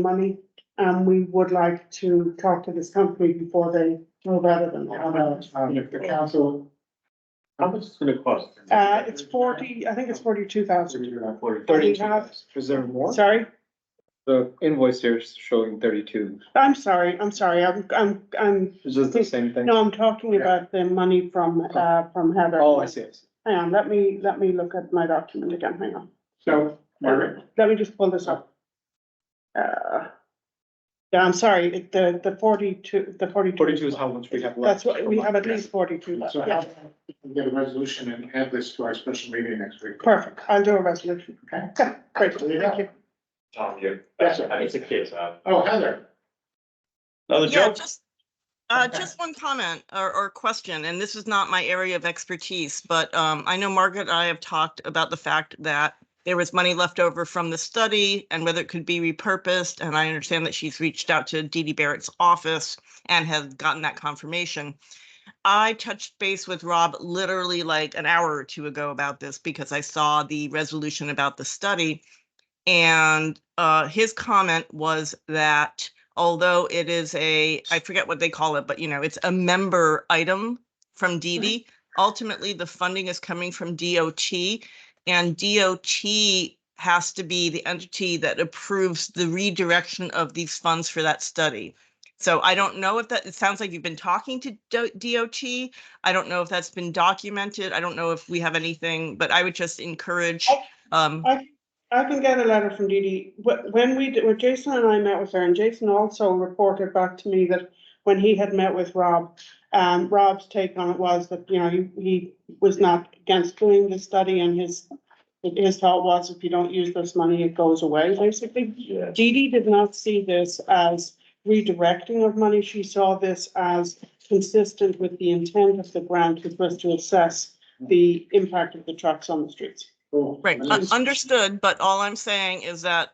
money, and we would like to talk to this company before they move out of them. How much, um, if the council, how much is it gonna cost? Uh, it's forty, I think it's forty-two thousand, Thirty. Is there more? sorry, The invoice here is showing thirty-two. I'm sorry, I'm sorry, I'm, I'm, I'm, Is this the same thing? no, I'm talking about the money from, uh, from Heather. Oh, I see, I see. Hang on, let me, let me look at my document again, hang on, So, Margaret, let me just pull this up. Uh, yeah, I'm sorry, it- the, the forty-two, the forty-two. Forty-two is how much we have That's left. what, we have at least forty-two left, so yeah. how, we can get a resolution and add this to our special meeting next week. Perfect, I'll do a resolution, okay, great, There you thank go. you. Tom, you. Yes, sir. I need to kiss out. Oh, Heather, Another Yeah, joke? just, uh, just one comment or, or question, and this is not my area of expertise, but, um, I know Margaret and I have talked about the fact that there was money left over from the study and whether it could be repurposed, and I understand that she's reached out to Dee Dee Barrett's office and has gotten that confirmation. I touched base with Rob literally like an hour or two ago about this because I saw the resolution about the study. And, uh, his comment was that although it is a, I forget what they call it, but you know, it's a member item from DD. Ultimately, the funding is coming from DOT and DOT has to be the entity that approves the redirection of these funds for that study. So I don't know if that, it sounds like you've been talking to Do- DOT. I don't know if that's been documented. I don't know if we have anything, but I would just encourage, um, I can get a letter from Dee Dee, Wh- when we, did- when Jason and I met with her, and Jason also reported back to me that when he had met with Rob, um, Rob's take on it was that, you know, he, he was not against doing the study and his, his thought was if you don't use this money, it goes away, basically. Yeah. Dee Dee did not see this as redirecting of money. She saw this as consistent with the intent of the grant, which was to assess the impact of the trucks on the streets. Cool. Right, And un- this- understood, but all I'm saying is that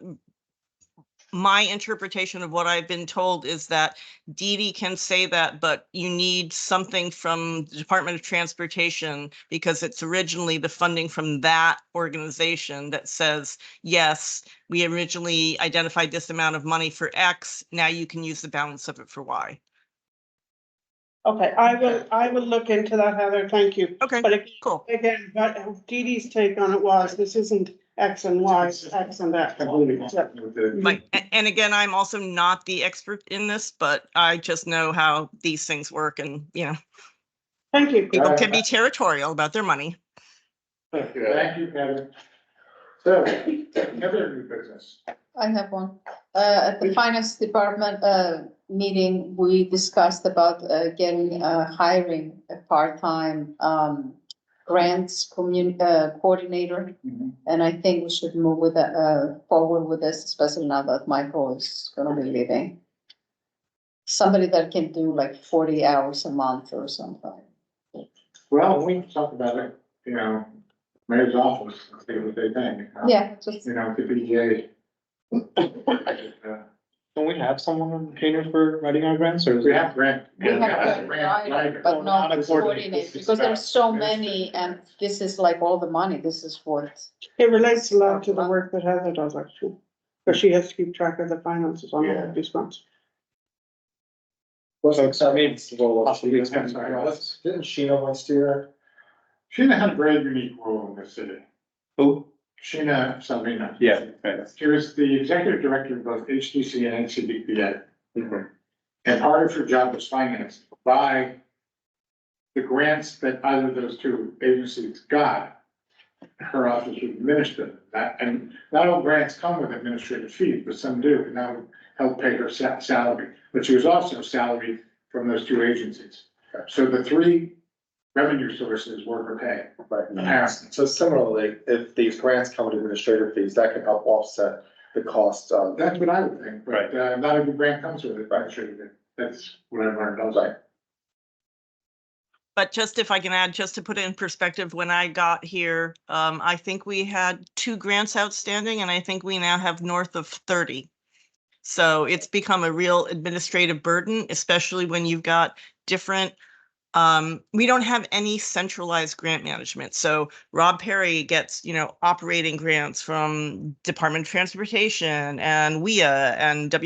my interpretation of what I've been told is that Dee Dee can say that, but you need something from the Department of Transportation because it's originally the funding from that organization that says, yes, we originally identified this amount of money for X, now you can use the balance of it for Y. Okay, I will, I will look into that, Heather. Thank you. Okay, But ag- cool. again, but Dee Dee's take on it was, this isn't X and Y, it's X and That's that. completely with the- Like, a- and again, I'm also not the expert in this, but I just know how these things work and, you know, Thank you. people can be territorial about their money. Thank you, Heather. So, Heather, new business. I have one. Uh, at the finance department, uh, meeting, we discussed about, uh, getting, uh, hiring a part-time, um, grants commun, uh, coordinator. Mm-hmm. Mhm. And I think we should move with, that, uh, forward with this, especially now that Michael is gonna be leaving. Somebody that can do like forty hours a month or something. Well, we can talk about it, you know, mayor's office, and see what they think. huh? Yeah, just, You know, the BJ. Don't we have someone on retainer for writing our grants or? is We it- have grant. we have a writer, but Not a coordinator. not coordinator, because there are so many, and this is like all the money, this is what. It relates a lot to the work that Heather does actually, because she has to keep track of the finances on all of these grants. So it's- I mean, Oh, it's- well, Possibly, we expect- I'm sorry, let's- Didn't Sheena last year? Sheena had a very unique role in the city. Who? Sheena Salvina. Yeah, right. She was the executive director of both HTC and NCDPA. And part of her job was financed by the grants that either of those two agencies got. Her office would administer that, and not all grants come with administrative fees, but some do, and that would help pay her sa- salary. But she was also salaried from those two agencies. So the three revenue sources were her pay, apparently. So similarly, if these grants come with administrative fees, that can help offset the cost of. That's what I would think, but uh, not every grant comes with it, but sure, that's what I learned, I was like. But just if I can add, just to put it in perspective, when I got here, um, I think we had two grants outstanding and I think we now have north of thirty. So it's become a real administrative burden, especially when you've got different Um, we don't have any centralized grant management. So Rob Perry gets, you know, operating grants from Department of Transportation E and WIA and